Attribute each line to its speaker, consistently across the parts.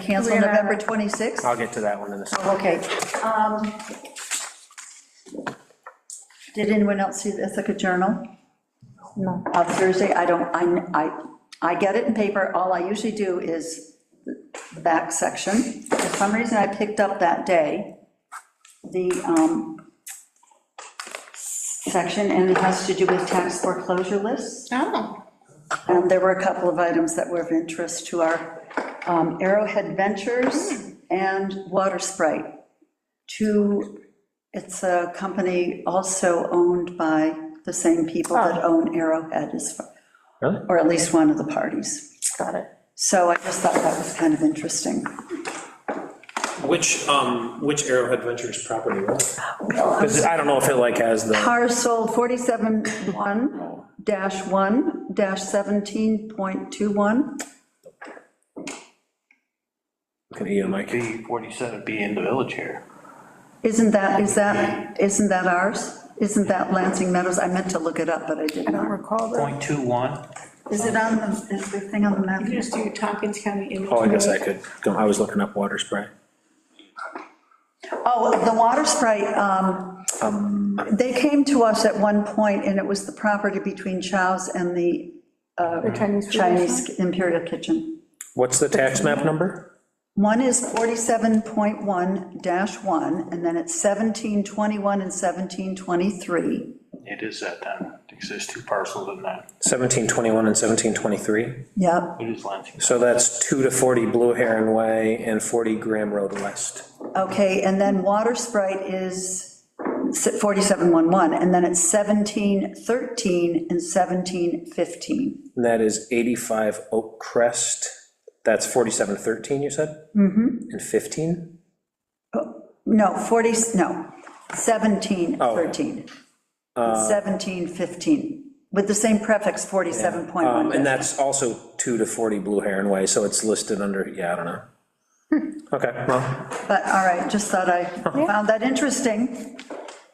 Speaker 1: Cancel
Speaker 2: We're
Speaker 1: November
Speaker 2: not-
Speaker 1: 26th?
Speaker 3: I'll get to that one in a second.
Speaker 1: Okay. Um, Did anyone else see the Ithaca Journal
Speaker 2: No.
Speaker 1: on Thursday? I don't, I, I, I get it in paper. All I usually do is the back section. For some reason, I picked up that day the um, section, and it has to do with tax foreclosure lists.
Speaker 2: Oh.
Speaker 1: And there were a couple of items that were of interest to our um, Arrowhead Ventures and Water Sprite. Two, it's a company also owned by the same people that own Arrowhead, as far-
Speaker 3: Really?
Speaker 1: or at least one of the parties.
Speaker 2: Got it.
Speaker 1: So I just thought that was kind of interesting.
Speaker 4: Which, um, which Arrowhead Ventures property was?
Speaker 3: Because I don't know if it like has the,
Speaker 1: Parcel 47-1-1-17.21.
Speaker 3: look at Ian, Mike.
Speaker 5: B, 47B in the village here.
Speaker 1: Isn't that, is that, isn't that ours? Isn't that Lansing Meadows? I meant to look it up, but I did
Speaker 2: I don't
Speaker 1: not.
Speaker 2: recall that.
Speaker 5: 0.21,
Speaker 1: Is it on the, is the thing on the map?
Speaker 2: You just do Tompkins County Image.
Speaker 3: Oh, I guess I could, go- I was looking up water spray.
Speaker 1: Oh, the water sprite, um, they came to us at one point, and it was the property between Chow's and the
Speaker 2: The Chinese. food
Speaker 1: Chinese Imperial Kitchen.
Speaker 3: What's the tax map number?
Speaker 1: One is 47.1-1, and then it's 1721 and 1723.
Speaker 5: it is that um, then, exists two parcels in that,
Speaker 3: 1721 and 1723.
Speaker 1: Yep,
Speaker 5: it is Lansing.
Speaker 3: So that's 2 to 40 Blue Heron Way and 40 Graham Road West.
Speaker 1: okay, and then water sprite is 4711, and then it's 1713 and 1715.
Speaker 3: And that is 85 Oak Crest. That's 4713, you said? Mm-hmm. And 15?
Speaker 1: No, 40, no, 17,
Speaker 3: Oh. Uh,
Speaker 1: 13. 17, 15, with the same prefix, 47.1.
Speaker 3: Um, And that's also 2 to 40 Blue Heron Way, so it's listed under, yeah, I don't know. Okay, well,
Speaker 1: But, all right, just thought I found that interesting.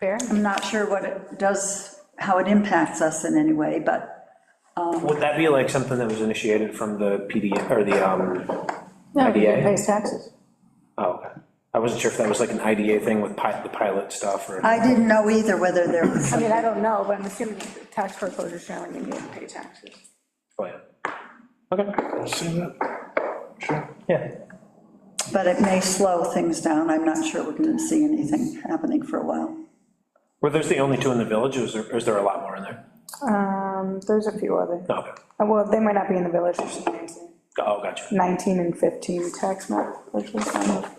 Speaker 2: Fair.
Speaker 1: I'm not sure what it does, how it impacts us in any way, but
Speaker 3: would that be like something that was initiated from the PD, or the, um,
Speaker 2: No, you
Speaker 3: IDA?
Speaker 2: pays taxes.
Speaker 3: oh, okay. I wasn't sure if that was like an IDA thing with pi- the pilot stuff or.
Speaker 1: I didn't know either whether there was
Speaker 2: I mean, I don't know, but I'm assuming tax foreclosure showing you need to pay taxes.
Speaker 3: Oh, yeah. Okay,
Speaker 5: See that? Sure.
Speaker 3: yeah.
Speaker 1: But it may slow things down. I'm not sure we're going to see anything happening for a while.
Speaker 3: Were those the only two in the village, or is there, or is there a lot more in there?
Speaker 2: Um, there's a few other,
Speaker 3: No, okay.
Speaker 2: uh, well, they might not be in the village, it's just 19.
Speaker 3: Oh, gotcha.
Speaker 2: 19 and 15 tax map, which is kind of.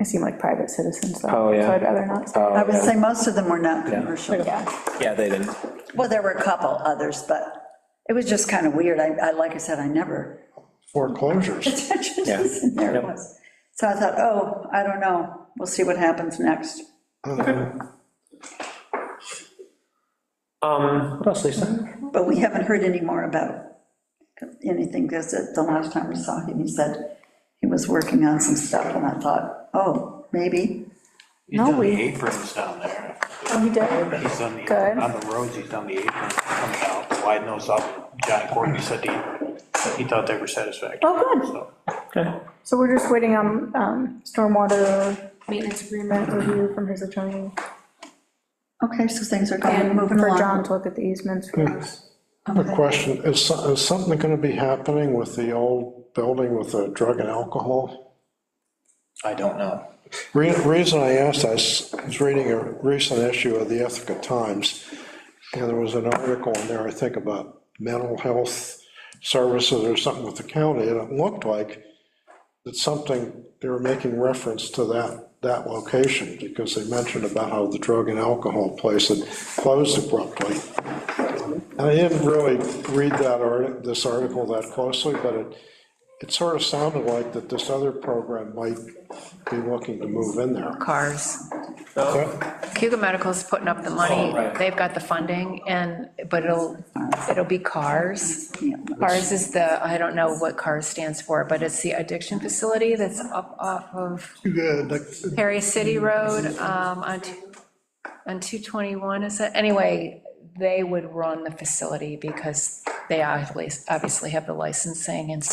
Speaker 2: I seem like private citizens, though.
Speaker 3: Oh, yeah.
Speaker 2: So I'd rather not. say.
Speaker 1: I would say most of them were not commercial.
Speaker 2: Yeah,
Speaker 3: Yeah, they didn't.
Speaker 1: Well, there were a couple others, but it was just kind of weird. I, I, like I said, I never.
Speaker 6: foreclosures.
Speaker 1: And There it was. So I thought, oh, I don't know. We'll see what happens next.
Speaker 3: Um, what else, Lisa?
Speaker 1: But we haven't heard any more about anything, because the last time we saw him, he said he was working on some stuff, and I thought, oh, maybe.
Speaker 5: He's
Speaker 2: No,
Speaker 5: done the
Speaker 2: we-
Speaker 5: aprons down there.
Speaker 2: oh, he did.
Speaker 5: He's done the,
Speaker 2: Good.
Speaker 5: on the roads, he's done the aprons, comes out, widen those up. John Courtney said he, he thought they were satisfactory.
Speaker 2: Oh, good.
Speaker 5: So,
Speaker 3: Okay.
Speaker 2: So we're just waiting on um, stormwater maintenance agreement review from his attorney.
Speaker 1: Okay, so things are going,
Speaker 2: And
Speaker 1: moving
Speaker 2: for John
Speaker 1: along.
Speaker 2: to look at the easements for us.
Speaker 6: A question, is, so- is something gonna be happening with the old building with the drug and alcohol?
Speaker 5: I don't know.
Speaker 6: Re- Reason I asked, I s- was reading a recent issue of the Ithaca Times, and there was an article in there, I think, about mental health services or something with the county, and it looked like that something, they were making reference to that, that location, because they mentioned about how the drug and alcohol place had closed abruptly. I didn't really read that art, this article that closely, but it, it sort of sounded like that this other program might be looking to move in there.
Speaker 7: cars.
Speaker 6: But
Speaker 7: Cuba Medical's putting up the money, they've got the funding, and, but it'll, it'll be cars. Cars is the, I don't know what cars stands for, but it's the addiction facility that's up off of Perry City Road, um, on, two- on 221, is it? Anyway, they would run the facility because They obviously obviously have the licensing and